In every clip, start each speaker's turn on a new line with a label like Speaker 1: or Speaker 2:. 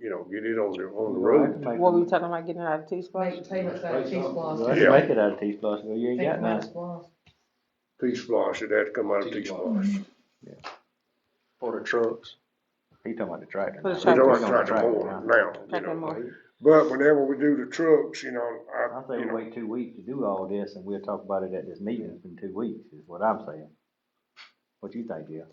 Speaker 1: it on the, on the road.
Speaker 2: What we were
Speaker 3: Make
Speaker 2: talking about getting out of T spot?
Speaker 4: Make, take us out of cheese blast.
Speaker 1: Yeah.
Speaker 3: it out of T plus, you ain't
Speaker 4: Take
Speaker 3: got
Speaker 4: them out
Speaker 3: none.
Speaker 4: of blast.
Speaker 1: Peach Floss, it'd have to come out of Peach Floss.
Speaker 3: For the trucks. He talking about the tractor.
Speaker 2: For the
Speaker 3: now.
Speaker 1: We don't have to
Speaker 3: He's talking
Speaker 2: tractor.
Speaker 1: try to
Speaker 3: about tractor
Speaker 1: more
Speaker 3: now.
Speaker 1: now, you
Speaker 2: Tractor
Speaker 1: know.
Speaker 2: more.
Speaker 1: But whenever we do the trucks, you know,
Speaker 3: I
Speaker 1: I,
Speaker 3: say
Speaker 1: you
Speaker 3: we
Speaker 1: know,
Speaker 3: wait two weeks to do all this and we'll talk about it at this meeting in two weeks, is what I'm saying. What you think, Jill?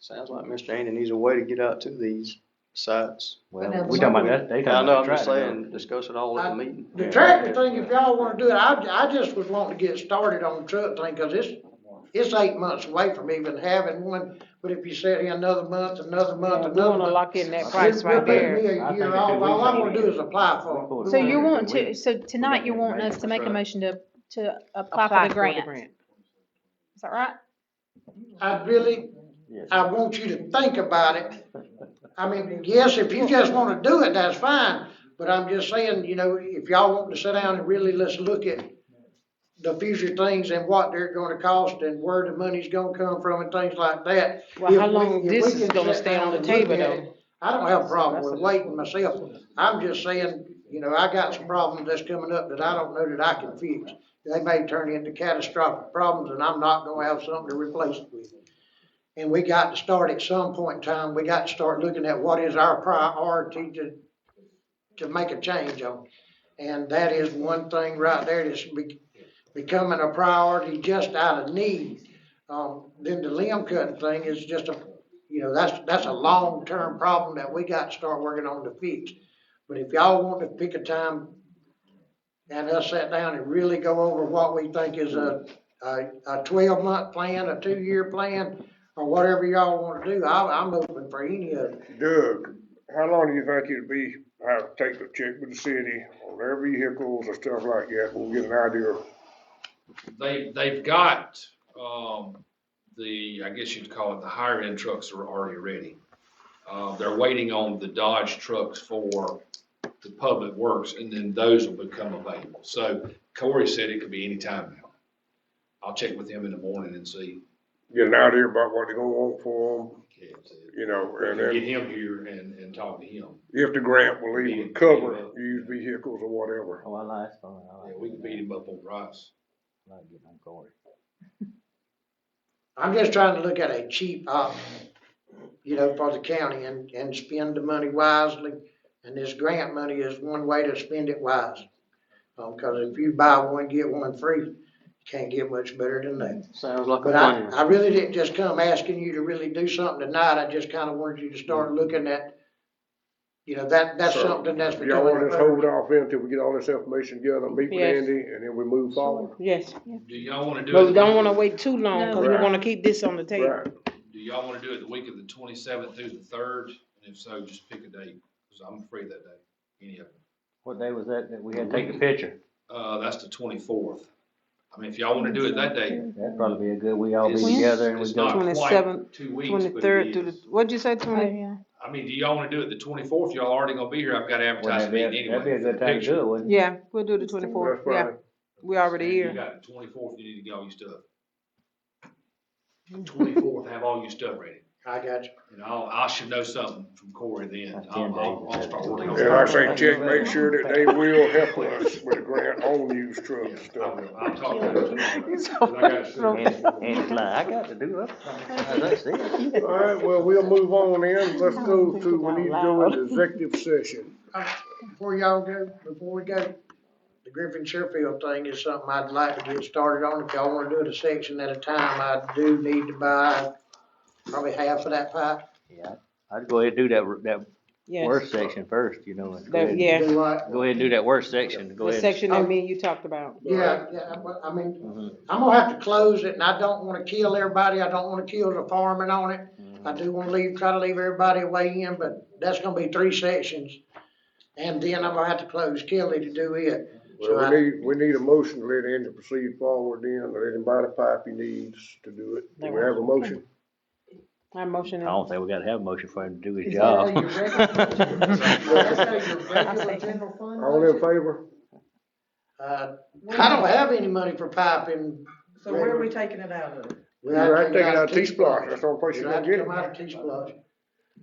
Speaker 5: Sounds like Mr. Andy needs a way to get out to these sites.
Speaker 3: Well,
Speaker 4: now
Speaker 3: we
Speaker 4: the
Speaker 3: talking about
Speaker 4: one
Speaker 3: that, they
Speaker 5: I
Speaker 3: talking
Speaker 5: know,
Speaker 3: about
Speaker 5: I'm
Speaker 3: the
Speaker 5: just
Speaker 3: tractor.
Speaker 5: saying, discuss it all at the meeting.
Speaker 6: The tractor thing, if y'all wanna do it, I, I just was wanting to get started on the truck thing, cause it's, it's eight months away from even having one. But if you sit here another month, another month,
Speaker 2: Yeah, we wanna
Speaker 6: another month.
Speaker 2: lock in that
Speaker 3: It's
Speaker 2: price
Speaker 6: it's
Speaker 2: right
Speaker 6: gonna take
Speaker 2: there.
Speaker 6: me
Speaker 3: I
Speaker 6: a
Speaker 3: think
Speaker 6: year
Speaker 3: the
Speaker 6: off,
Speaker 3: two
Speaker 6: all I'm
Speaker 3: weeks
Speaker 6: gonna
Speaker 3: ain't
Speaker 6: do
Speaker 3: it.
Speaker 6: is apply for
Speaker 3: Pull
Speaker 6: it.
Speaker 3: the
Speaker 7: So
Speaker 3: tractor
Speaker 7: you
Speaker 3: in
Speaker 7: want
Speaker 3: two
Speaker 7: to,
Speaker 3: weeks.
Speaker 7: so tonight you want us to make a motion to, to uh, apply for the grant, is that right?
Speaker 6: I really,
Speaker 3: Yes.
Speaker 6: I want you to think about it. I mean, yes, if you just wanna do it, that's fine, but I'm just saying, you know, if y'all want to sit down and really let's look at the future things and what they're gonna cost and where the money's gonna come from and things like that.
Speaker 2: Well, how
Speaker 6: If we-
Speaker 2: long
Speaker 6: if we
Speaker 2: this
Speaker 6: can
Speaker 2: is gonna
Speaker 6: sit
Speaker 2: stay
Speaker 6: down
Speaker 2: on the
Speaker 6: and look
Speaker 2: table
Speaker 6: at
Speaker 2: though?
Speaker 6: it, I don't have a problem
Speaker 2: That's
Speaker 6: with
Speaker 2: a-
Speaker 6: waiting myself, I'm just saying, you know, I got some problems that's coming up that I don't know that I can fix. They may turn into catastrophic problems and I'm not gonna have something to replace it with. And we got to start at some point in time, we got to start looking at what is our priority to, to make a change on. And that is one thing right there that's be- becoming a priority just out of need. Um, then the limb cutting thing is just a, you know, that's, that's a long-term problem that we got to start working on to fix. But if y'all want to pick a time and us sit down and really go over what we think is a, a, a twelve-month plan, a two-year plan, or whatever y'all want to do, I, I'm open for any of it.
Speaker 1: Doug, how long do you think it'd be, have to take a check with the city on their vehicles and stuff like that? We'll get an idea of
Speaker 8: They, they've got, um, the, I guess you'd call it, the higher end trucks are already ready. Uh, they're waiting on the Dodge trucks for the public works, and then those will become available. So Corey said it could be any time now. I'll check with him in the morning and see.
Speaker 1: getting out here about what they're gonna want for them, you know, and
Speaker 8: Get
Speaker 1: then
Speaker 8: him here and, and talk to him.
Speaker 1: if the grant will even cover used vehicles or whatever.
Speaker 3: Oh, I like, that's fine, I
Speaker 8: Yeah,
Speaker 3: like.
Speaker 8: we can beat him up on price.
Speaker 3: I like getting on Corey.
Speaker 6: I'm just trying to look at a cheap option, you know, for the county and, and spend the money wisely. And this grant money is one way to spend it wise. Um, cause if you buy one, get one free, you can't get much better than that.
Speaker 5: Sounds like a
Speaker 6: But I,
Speaker 5: plan.
Speaker 6: I really didn't just come asking you to really do something tonight, I just kinda wanted you to start looking at, you know, that, that's
Speaker 1: So,
Speaker 6: something that's
Speaker 1: If Y'all wanna
Speaker 6: becoming.
Speaker 1: just hold off until we get all this information together, meet with
Speaker 2: Yes.
Speaker 1: Andy, and then we move forward?
Speaker 2: Yes,
Speaker 8: Do y'all wanna do?
Speaker 2: but
Speaker 8: it-
Speaker 2: we don't wanna wait too long,
Speaker 7: No.
Speaker 2: cause we
Speaker 1: Right.
Speaker 2: wanna keep this on the table.
Speaker 1: Right.
Speaker 8: Do y'all wanna do it the week of the twenty-seventh through the third? And if so, just pick a date, cause I'm free that day, any of them.
Speaker 3: What day was that, that we had to take the picture?
Speaker 8: Uh, that's the twenty-fourth. I mean, if y'all wanna do it that day,
Speaker 3: That'd probably be a good, we all be
Speaker 8: it's,
Speaker 3: together and we
Speaker 8: it's not
Speaker 3: go.
Speaker 8: quite
Speaker 2: Twenty-seventh,
Speaker 8: two weeks, but
Speaker 2: Twenty-third
Speaker 8: it
Speaker 2: through the,
Speaker 8: is.
Speaker 2: what'd you say,
Speaker 7: Oh,
Speaker 2: twenty?
Speaker 7: yeah.
Speaker 8: I mean, do y'all wanna do it the twenty-fourth? Y'all already gonna be here. I've got advertised
Speaker 3: That'd be,
Speaker 8: meeting
Speaker 3: a-
Speaker 8: anyway.
Speaker 3: that'd be a good time to
Speaker 8: Picture.
Speaker 3: do it, wouldn't it?
Speaker 2: Yeah, we'll do the twenty-fourth,
Speaker 1: That's
Speaker 2: yeah,
Speaker 1: fine.
Speaker 2: we already
Speaker 8: You
Speaker 2: here.
Speaker 8: got the twenty-fourth, you need to get all your stuff. Twenty-fourth, have all your stuff ready.
Speaker 6: I got you.
Speaker 8: And I'll, I should know something from Corey then.
Speaker 3: That's ten
Speaker 8: I'll, I'll,
Speaker 3: days.
Speaker 8: I'll start working on it.
Speaker 1: And I say, check, make sure that they will help us with the grant on used
Speaker 8: Yeah,
Speaker 1: trucks and
Speaker 8: I
Speaker 1: stuff.
Speaker 8: will. I'll talk to him tomorrow.
Speaker 2: He's so
Speaker 8: 'cause I gotta see.
Speaker 2: frustrated.
Speaker 3: And, and it's like, I got to do it. That's it.
Speaker 1: All right, well, we'll move on then. Let's go to, we need to go into executive session.
Speaker 6: Before y'all go, before we go, the Griffin Sherfield thing is something I'd like to get started on, if y'all wanna do it a section at a time, I do need to buy probably half of that pipe.
Speaker 3: Yeah, I'd go ahead and do that, that
Speaker 2: Yes,
Speaker 3: worst section first, you know, and go
Speaker 2: That-
Speaker 3: ahead,
Speaker 2: yeah.
Speaker 6: Do what?
Speaker 3: go ahead and do that worst section, go
Speaker 2: the
Speaker 3: ahead.
Speaker 2: section that me and you talked about.
Speaker 6: Yeah, yeah, but I mean,
Speaker 3: Mhm.
Speaker 6: I'm gonna have to close it, and I don't wanna kill everybody, I don't wanna kill the farming on it. I do wanna leave, try to leave everybody way in, but that's gonna be three sections. And then I'm gonna have to close Kelly to do it.
Speaker 1: Well, we need, we need a motion to let Andy proceed forward then, let him buy the pipe he needs to do it. Do we have a motion?
Speaker 2: I motion
Speaker 3: I
Speaker 2: it.
Speaker 3: don't think we gotta have a motion for him to do his
Speaker 6: Is that
Speaker 3: job.
Speaker 6: how you That's your regular general fund
Speaker 1: All in
Speaker 6: budget?
Speaker 1: favor?
Speaker 6: Uh, I don't have any money for piping.
Speaker 4: So where are we taking it out of?
Speaker 1: You're right there, that T-Splot, that's the only place
Speaker 6: You
Speaker 1: you're
Speaker 6: have
Speaker 1: gonna
Speaker 6: to
Speaker 1: get it.
Speaker 6: come out of T-Splot.